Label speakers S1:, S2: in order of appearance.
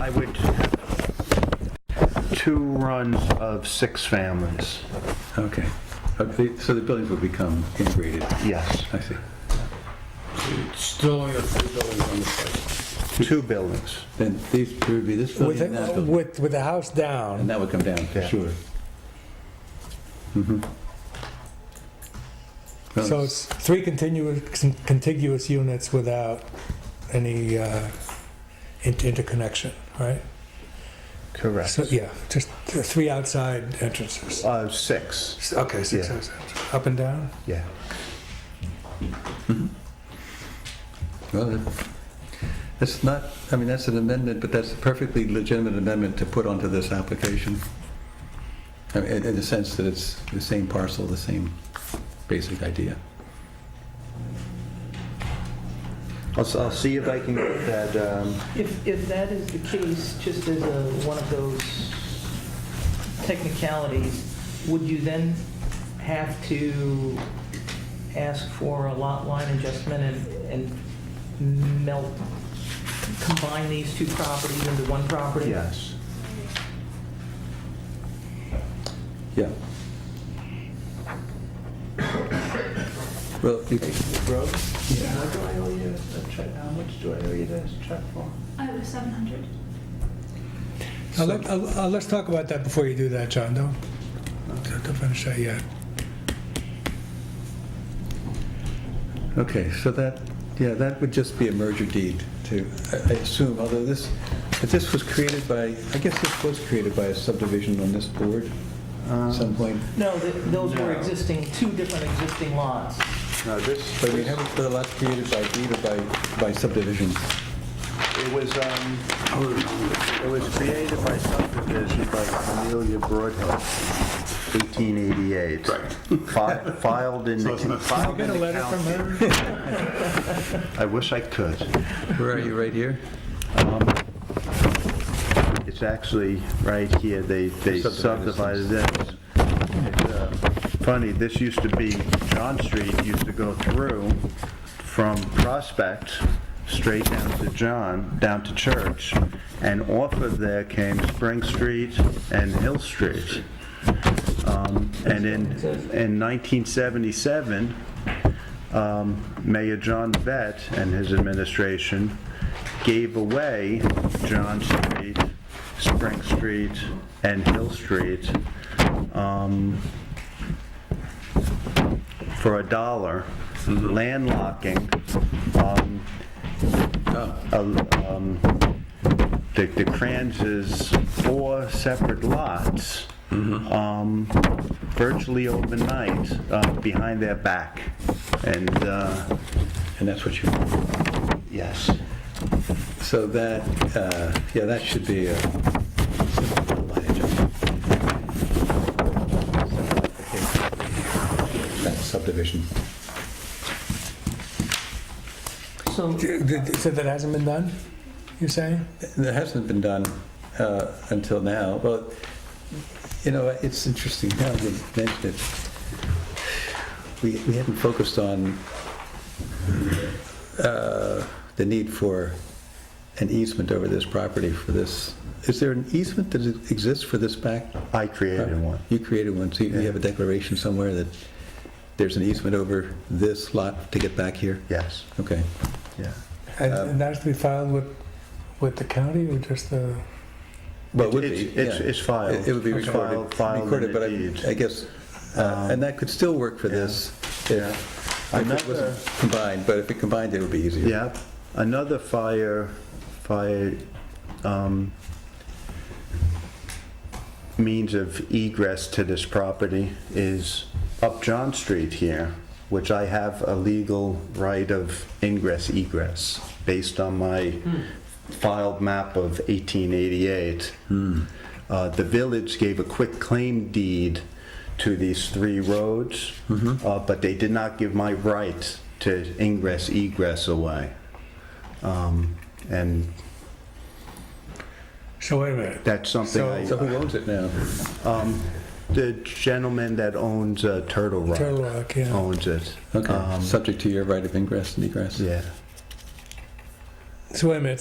S1: I would have two runs of six families,
S2: Okay. Uh, they- So the buildings would become integrated.
S1: yes.
S2: I see.
S3: Still only have three buildings on the site.
S1: Two buildings.
S2: Then these, there would be this
S4: With,
S2: building and that
S4: the-
S2: building.
S4: with, with the house
S2: And
S4: down,
S2: that would come down, for
S1: Yeah.
S2: sure. Mm-hmm.
S4: so it's three continuous, contiguous units without any uh, in- interconnection, right?
S1: Correct.
S4: So, yeah, just th- three outside entrances.
S1: Uh, six,
S4: S- Okay, six
S1: Yeah.
S4: outside, up and down?
S1: yeah.
S2: Well, that- that's not, I mean, that's an amendment, but that's a perfectly legitimate amendment to put onto this application. I mean, In in the sense that it's the same parcel, the same basic idea.
S1: I'll, s- I'll see if I can get that, um,
S5: If, if that is the case, just as a, one of those technicalities, would you then have to ask for a lot line adjustment and, and melt, combine these two properties into one property?
S1: yes.
S2: Yeah. Well, you,
S5: Yeah. How do I owe you a check, how much do I owe you this check for?
S6: I was 700.
S4: Now, let- uh, uh, let's talk about that before you do that, John, don't, don't don't finish that yet.
S2: okay, so that, yeah, that would just be a merger deed to, I I assume, although this, if this was created by, I guess this was created by a subdivision on this board at some point.
S5: No, th- those
S1: No.
S5: were existing, two different existing lots.
S1: No, this,
S2: But we haven't, the lots created by deed or by, by subdivision.
S1: it was, um, it was created by subdivision by Amelia Broadhead, 1888. Right. Filed in, the- filed in the county.
S4: her?
S1: I wish I could.
S2: Where are you, right here?
S1: It's actually right here, they, they subdivided it. It's, uh, Funny, this used to be, John Street used to go through from Prospect straight down to John, down to Church, and off of there came Spring Street and Hill Street. Um, And in, in 1977, um, Mayor John Vett and his administration gave away John Street, Spring Street, and Hill Street um, for a dollar, landlocking um, a- um, the the Kranz's four separate lots um, virtually overnight uh, behind their back. And, uh,
S2: And that's what you,
S1: yes,
S2: so that, uh, yeah, that should be a simple line adjustment. That's subdivision.
S5: So,
S4: So that hasn't been done, you're saying?
S2: That hasn't been done uh, until now, but, you know, it's interesting now that you mentioned it. We we hadn't focused on uh, the need for an easement over this property for this. Is there an easement that exists for this back?
S1: I created one.
S2: You created one, so you you have a declaration somewhere that there's an easement over this lot to get back here?
S1: Yes,
S2: Okay.
S1: yeah.
S4: And and that has to be filed with, with the county or just the?
S2: Well, it would
S1: It's-
S2: be,
S1: it's-
S2: yeah.
S1: it's filed.
S2: It it would be
S1: It's
S2: recorded,
S1: filed- filed
S2: recorded,
S1: in
S2: but
S1: the
S2: I-
S1: deed.
S2: I guess, uh, and that could still work for this
S1: Yeah.
S2: if if it
S1: Another-
S2: wasn't combined, but if it combined, it would be easier.
S1: Yeah, another fire, fire, um, means of egress to this property is up John Street here, which I have a legal right of ingress egress based on my
S2: Hmm.
S1: filed map of 1888.
S2: Hmm.
S1: Uh, The village gave a quick claim deed to these three roads,
S4: Mm-hmm.
S1: uh, but they did not give my right to ingress egress away. Um, And
S4: So wait a minute.
S1: that's something
S4: So-
S1: I...
S2: So who owns it now?
S1: Um, The gentleman that owns uh, Turtle Rock.
S4: Turtle Rock, yeah.
S1: Owns it.
S2: Okay,
S1: Um,
S2: subject to your right of ingress and egress.
S1: Yeah.
S4: So wait a minute,